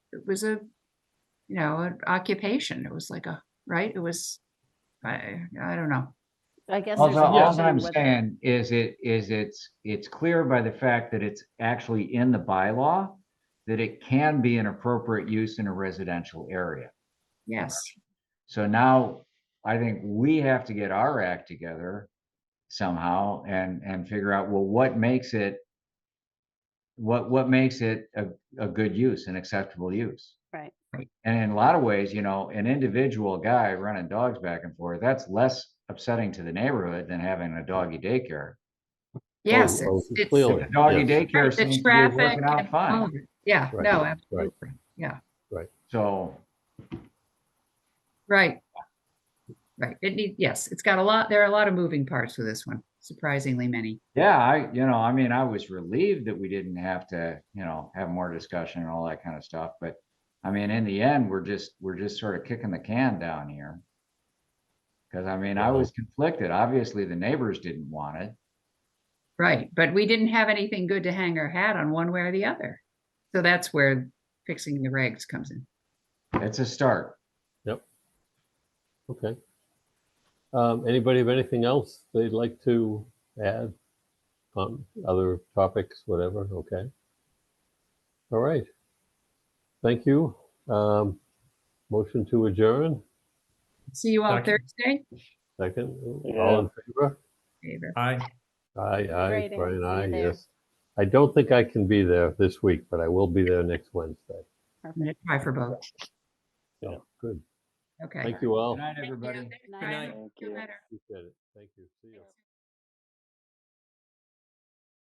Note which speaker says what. Speaker 1: it was a, you know, an occupation. It was like a, right? It was, I, I don't know.
Speaker 2: I guess.
Speaker 3: Also,
Speaker 2: there's a
Speaker 3: all
Speaker 2: question
Speaker 3: I'm
Speaker 2: whether-
Speaker 3: saying is it, is it's, it's clear by the fact that it's actually in the bylaw that it can be an appropriate use in a residential area.
Speaker 1: Yes.
Speaker 4: Oh,
Speaker 3: So now I think we have to get our act together somehow and, and figure out, well, what makes it? What, what makes it a, a good use, an acceptable use?
Speaker 2: Right.
Speaker 1: Right.
Speaker 3: And in a lot of ways, you know, an individual guy running dogs back and forth, that's less upsetting to the neighborhood than having a doggy daycare.
Speaker 1: Yes.
Speaker 4: oh,
Speaker 1: it's- it's-
Speaker 4: clearly.
Speaker 3: The doggy
Speaker 4: Yes.
Speaker 3: daycare
Speaker 1: The
Speaker 3: seems to be
Speaker 1: traffic.
Speaker 3: working
Speaker 1: and
Speaker 3: out
Speaker 1: all
Speaker 3: fine,
Speaker 1: of it. Yeah,
Speaker 4: Right,
Speaker 1: no,
Speaker 4: right.
Speaker 1: absolutely.
Speaker 3: so.
Speaker 1: Right. Right. It need, yes, it's got a lot, there are a lot of moving parts with this one, surprisingly many.
Speaker 3: Yeah, I, you know, I mean, I was relieved that we didn't have to, you know, have more discussion and all that kind of stuff, but I mean, in the end, we're just, we're just sort of kicking the can down here. Cause I mean, I
Speaker 4: Yeah.
Speaker 3: was conflicted. Obviously, the neighbors didn't want it.
Speaker 1: Right. But we didn't have anything good to hang our hat on one way or the other. So that's where fixing the regs comes in.
Speaker 3: It's a start.
Speaker 4: Okay. Um, anybody have anything else they'd like to add on other topics, whatever? Okay. All right. Thank you. Um, motion to adjourn.
Speaker 1: See you all
Speaker 5: Second.
Speaker 1: Thursday.
Speaker 4: Second. All in favor?
Speaker 1: Favor.
Speaker 5: Aye.
Speaker 4: Aye, aye,
Speaker 2: Great, I
Speaker 4: Brian,
Speaker 2: see
Speaker 4: aye,
Speaker 2: you there.
Speaker 4: yes. I don't think I can be there this week, but I will be there next Wednesday.
Speaker 1: I'm going to try for both.
Speaker 4: Yeah, good.
Speaker 1: Okay.
Speaker 4: Thank you all.
Speaker 3: Good night,
Speaker 1: Oh. Thank you.
Speaker 3: everybody.
Speaker 1: Thanks,
Speaker 5: Good
Speaker 1: Brian.
Speaker 5: night.
Speaker 1: Feel better.
Speaker 4: Appreciate it. Thank you. See you.